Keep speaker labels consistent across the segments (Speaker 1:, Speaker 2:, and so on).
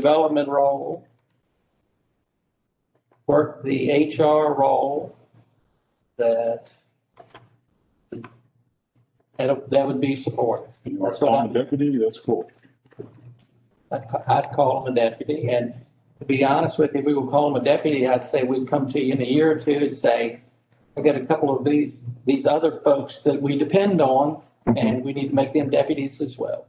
Speaker 1: development role, work the HR role that that, that would be supported.
Speaker 2: You
Speaker 1: That's
Speaker 2: are
Speaker 1: what
Speaker 2: on the deputy, that's cool.
Speaker 1: I'd, ca- I'd call him a deputy, and to be honest with you, if we would call him a deputy, I'd say we'd come to you in a year or two and say, I've got a couple of these, these other folks that we depend on, and we need to make them deputies as well.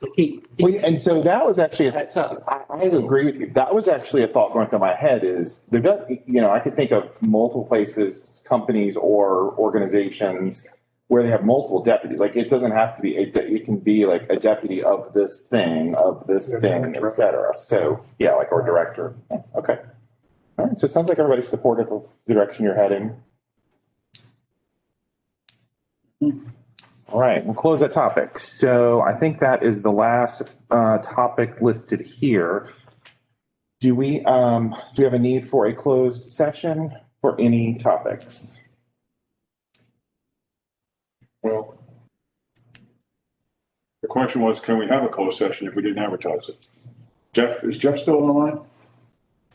Speaker 1: To keep, keep
Speaker 3: Well, and so that was actually, a-
Speaker 1: that up.
Speaker 3: I, I agree with you. That was actually a thought going through my head is there does, you know, I could think of multiple places, companies or organizations where they have multiple deputies. Like it doesn't have to be, it, it can be like a deputy of this thing, of this thing, et cetera. So, yeah, like or director. Yeah, Okay. All right. So it sounds like everybody's supportive of the direction you're heading. All right, we'll close that topic. So I think that is the last uh, topic listed here. Do we, um, do we have a need for a closed session for any topics?
Speaker 2: Well, the question was, can we have a closed session if we didn't advertise it? Jeff, is Jeff still on the line?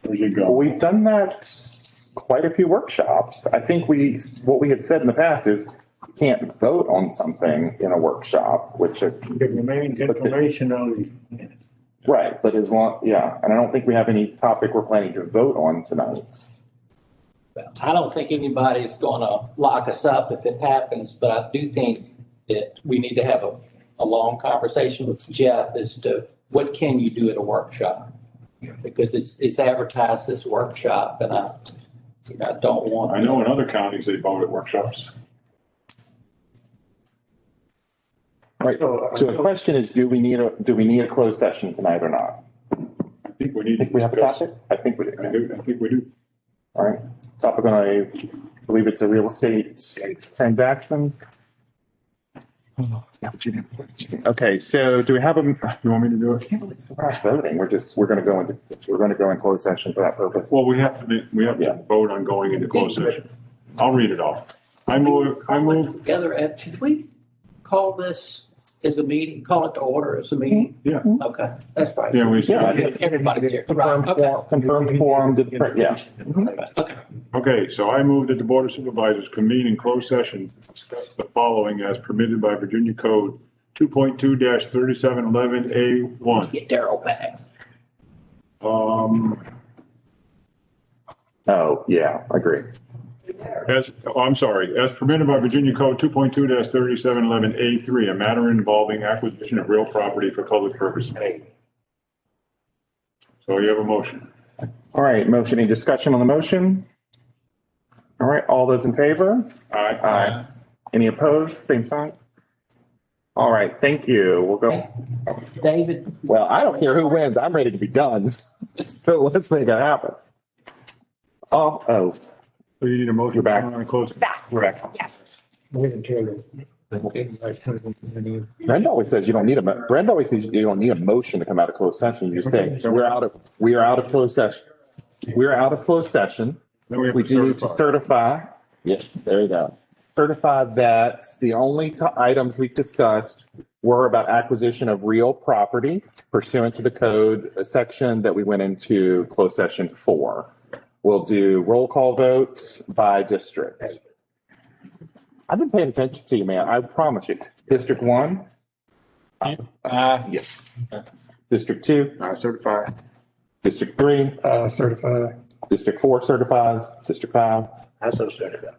Speaker 2: Where's he
Speaker 3: Well,
Speaker 2: gone?
Speaker 3: We've done that quite a few workshops. I think we, what we had said in the past is you can't vote on something in a workshop, which,
Speaker 4: It remains information only.
Speaker 3: right, but as long, yeah, and I don't think we have any topic we're planning to vote on tonight.
Speaker 1: I don't think anybody's gonna lock us up if it happens, but I do think that we need to have a, a long conversation with Jeff as to what can you do at a workshop? Because it's, it's advertised as workshop and I, I don't
Speaker 2: I
Speaker 1: want,
Speaker 2: know in other counties, they vote at workshops.
Speaker 3: Right,
Speaker 4: So,
Speaker 3: so the question is, do we need a, do we need a closed session tonight or not?
Speaker 2: I think we need.
Speaker 3: I
Speaker 2: to
Speaker 3: think we have a
Speaker 2: discuss-
Speaker 3: topic? I think we do.
Speaker 2: I do, I think we do.
Speaker 3: All right. Topic on, I believe it's a real estate transaction. Okay, so do we have a,
Speaker 2: You want me to do it?
Speaker 3: we're not voting, we're just, we're gonna go into, we're gonna go in closed session for that purpose.
Speaker 2: Well, we have to, be- we have
Speaker 3: Yeah.
Speaker 2: to vote on going into closed session. I'll read it off. I move, I move,
Speaker 1: together, and did we call this as a meeting, call it to order as a meeting?
Speaker 2: yeah,
Speaker 1: Okay, that's right.
Speaker 2: yeah, we said,
Speaker 1: Everybody's here, right, okay,
Speaker 3: Confirmed forum, did- yeah.
Speaker 1: okay.
Speaker 2: okay, so I move that the Board of Supervisors convene in closed session, to discuss the following as permitted by Virginia Code two point two thirty-seven eleven A one.
Speaker 1: Get Daryl back.
Speaker 2: Um,
Speaker 3: Oh, yeah, I agree.
Speaker 2: as, oh, I'm sorry, as permitted by Virginia Code two point two thirty-seven eleven A three, a matter involving acquisition of real property for public purposes. So you have a motion.
Speaker 3: All right, motion, any discussion on the motion? All right, all those in favor?
Speaker 2: Aye.
Speaker 3: Aye. Any opposed? Same sign? All right, thank you. We'll go.
Speaker 1: David,
Speaker 3: Well, I don't care who wins. I'm ready to be done. So let's make it happen. Oh, oh,
Speaker 2: So you need a motion.
Speaker 3: You're back.
Speaker 2: On a closed.
Speaker 3: we're back.
Speaker 5: Yes.
Speaker 4: Wait until.
Speaker 3: Brenda always says you don't need a, mo- Brenda always says you don't need a motion to come out of closed session. You just say, we're out of, we are out of closed session. We're out of closed session.
Speaker 2: Then we have
Speaker 3: We
Speaker 2: to
Speaker 3: do need to
Speaker 2: certify.
Speaker 3: certify. Yes, there you go. Certify that the only t- items we discussed were about acquisition of real property pursuant to the code uh, section that we went into closed session for. We'll do roll call votes by district. I've been paying attention to you, man. I promise you. District one? Uh, yes. District two? I certify. District three?
Speaker 4: Uh, certified.
Speaker 3: District four certifies, district five.
Speaker 4: I so certified.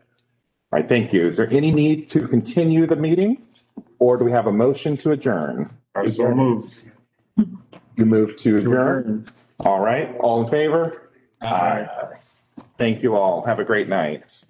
Speaker 3: All right, thank you. Is there any need to continue the meeting? Or do we have a motion to adjourn?
Speaker 2: I so move.
Speaker 3: You move to adjourn. All right, all in favor? Aye. Thank you all. Have a great night.